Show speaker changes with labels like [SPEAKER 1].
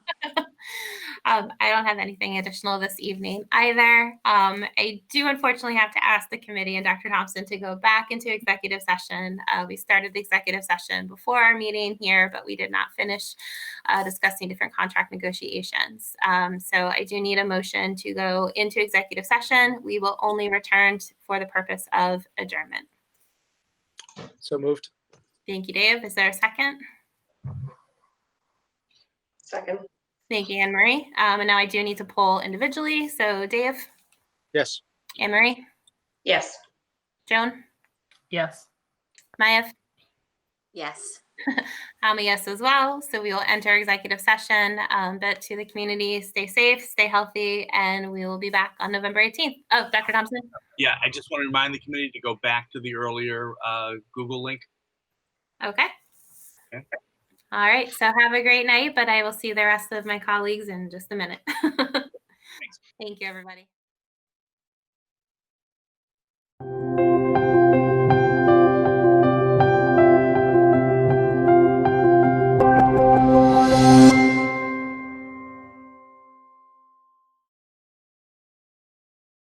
[SPEAKER 1] Um, I don't have anything additional this evening either. Um, I do unfortunately have to ask the committee and Dr. Thompson to go back into executive session. Uh, we started the executive session before our meeting here, but we did not finish uh, discussing different contract negotiations. Um, so I do need a motion to go into executive session. We will only return t- for the purpose of adjournment.
[SPEAKER 2] So moved.
[SPEAKER 1] Thank you, Dave. Is there a second?
[SPEAKER 3] Second,
[SPEAKER 1] Thank you, Anne Marie. Um, and now I do need to poll individually. So Dave,
[SPEAKER 2] Yes.
[SPEAKER 1] Anne Marie,
[SPEAKER 3] yes.
[SPEAKER 1] Joan,
[SPEAKER 4] Yes.
[SPEAKER 1] Maya,
[SPEAKER 5] Yes.
[SPEAKER 1] I'm um, a yes as well. So we will enter executive session. Um, but to the community, stay safe, stay healthy, and we will be back on November 18th. Oh, Dr. Thompson.
[SPEAKER 6] Yeah, I just want to remind the committee to go back to the earlier uh, Google link.
[SPEAKER 1] Okay.
[SPEAKER 6] Okay.
[SPEAKER 1] All right. So have a great night, but I will see the rest of my colleagues in just a minute. Thank you, everybody.